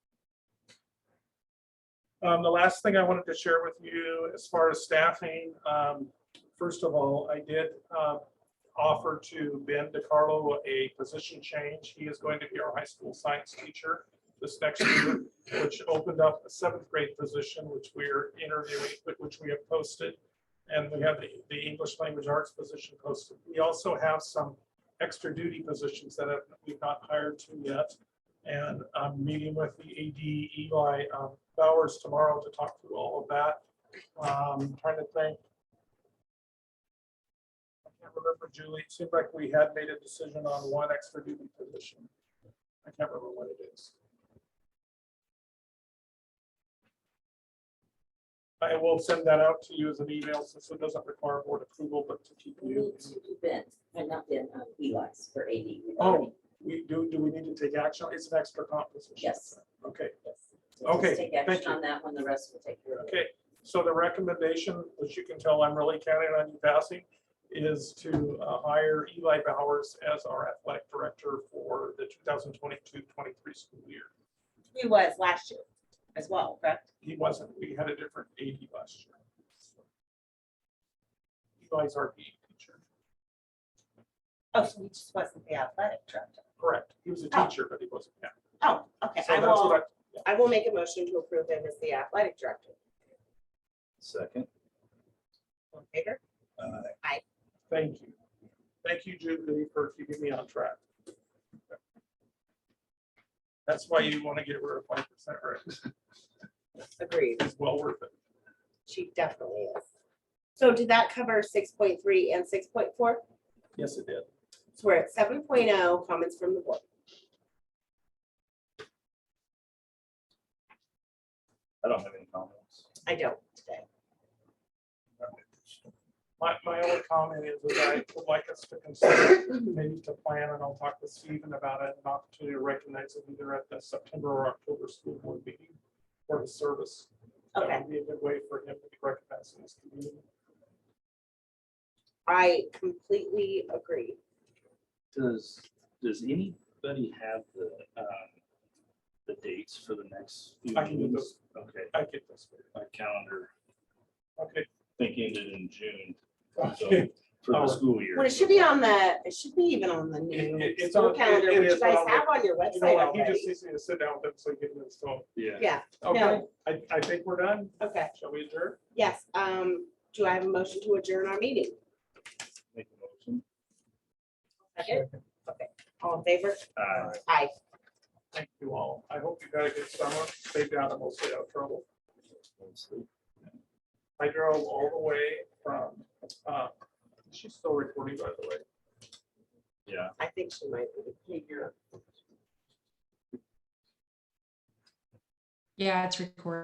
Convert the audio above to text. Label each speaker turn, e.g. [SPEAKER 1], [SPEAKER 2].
[SPEAKER 1] Um, the last thing I wanted to share with you as far as staffing, um, first of all, I did, uh, offer to Ben DiCarlo a position change. He is going to be our high school science teacher this next year, which opened up a seventh grade position, which we're interviewing, but which we have posted. And we have the, the English language arts position posted. We also have some extra duty positions that have- we've not hired to yet. And I'm meeting with the AD Eli um, Bowers tomorrow to talk through all of that. Um, Trying to think. I can't remember, Julie, it seemed like we had made a decision on one extra duty position. I can't remember what it is. I will send that out to you as an email since it doesn't require board approval, but to keep
[SPEAKER 2] We
[SPEAKER 1] you.
[SPEAKER 2] need to event, and not been um, Eli's for AD. We've
[SPEAKER 1] Oh,
[SPEAKER 2] already-
[SPEAKER 1] we do, do we need to take action? It's an extra composition.
[SPEAKER 2] Yes.
[SPEAKER 1] Okay,
[SPEAKER 2] yes. So just
[SPEAKER 1] Okay,
[SPEAKER 2] Take
[SPEAKER 1] thank
[SPEAKER 2] action
[SPEAKER 1] you.
[SPEAKER 2] on that one, the rest will take care of it.
[SPEAKER 1] okay. So the recommendation, which you can tell I'm really counting on you passing, is to uh, hire Eli Bowers as our athletic director for the 2022-23 school year.
[SPEAKER 3] He was last year as well, correct?
[SPEAKER 1] He wasn't, we had a different AD last year. Eli's our PE teacher.
[SPEAKER 3] Oh, so he just wasn't the athletic director.
[SPEAKER 1] Correct. He was a
[SPEAKER 3] Oh.
[SPEAKER 1] teacher, but he wasn't. yeah.
[SPEAKER 3] Oh, okay.
[SPEAKER 1] So
[SPEAKER 3] I
[SPEAKER 1] that's what
[SPEAKER 3] will,
[SPEAKER 1] I-
[SPEAKER 3] I will make a motion to approve him as the athletic director.
[SPEAKER 4] Second.
[SPEAKER 3] All in favor?
[SPEAKER 1] Thank you. Thank you, Julie, for keeping me on track. That's why you want to get rid of five percent, right?
[SPEAKER 3] Agreed.
[SPEAKER 1] It's well worth it.
[SPEAKER 3] She definitely is. So did that cover six point three and six point four?
[SPEAKER 1] Yes, it did.
[SPEAKER 3] So we're at seven oh, comments from the board.
[SPEAKER 4] I don't have any comments.
[SPEAKER 3] I don't today.
[SPEAKER 1] My, my only comment is that I would like us to consider, maybe to plan, and I'll talk with Stephen about it, an opportunity to recognize him either at the September or October school board meeting for his service. That
[SPEAKER 3] Okay.
[SPEAKER 1] would Be a good way for him to be recognized in this community.
[SPEAKER 3] I completely agree.
[SPEAKER 4] Does, does anybody have the, um, the dates for the next? few
[SPEAKER 1] I can do
[SPEAKER 4] meetings? Okay,
[SPEAKER 1] I get this.
[SPEAKER 4] my calendar,
[SPEAKER 1] Okay.
[SPEAKER 4] I think ended in June, so Oh,
[SPEAKER 1] Okay.
[SPEAKER 4] for the
[SPEAKER 1] Alright.
[SPEAKER 4] school year.
[SPEAKER 3] Well, it should be on the, it should be even on the
[SPEAKER 1] It-
[SPEAKER 3] new
[SPEAKER 1] it- it's
[SPEAKER 3] school
[SPEAKER 1] on- it-
[SPEAKER 3] calendar,
[SPEAKER 1] it
[SPEAKER 3] which
[SPEAKER 1] is
[SPEAKER 3] you guys
[SPEAKER 1] on the-
[SPEAKER 3] have on your
[SPEAKER 1] You
[SPEAKER 3] website
[SPEAKER 1] know what? He just
[SPEAKER 3] already.
[SPEAKER 1] needs me to sit down with him so he can install.
[SPEAKER 4] Yeah.
[SPEAKER 3] Yeah,
[SPEAKER 1] Okay,
[SPEAKER 3] No.
[SPEAKER 1] I, I think we're done.
[SPEAKER 3] okay.
[SPEAKER 1] Shall we adjourn?
[SPEAKER 3] Yes, um, do I have a motion to adjourn our meeting?
[SPEAKER 4] Make a motion.
[SPEAKER 3] Okay. All in favor?
[SPEAKER 4] Uh,
[SPEAKER 3] Aye.
[SPEAKER 1] Thank you all. I hope you got a good summer. Stay down and we'll stay out of trouble. I drove all the way from, uh, she's still recording, by the way.
[SPEAKER 4] Yeah,
[SPEAKER 3] I think she might be.
[SPEAKER 5] Yeah, it's recorded.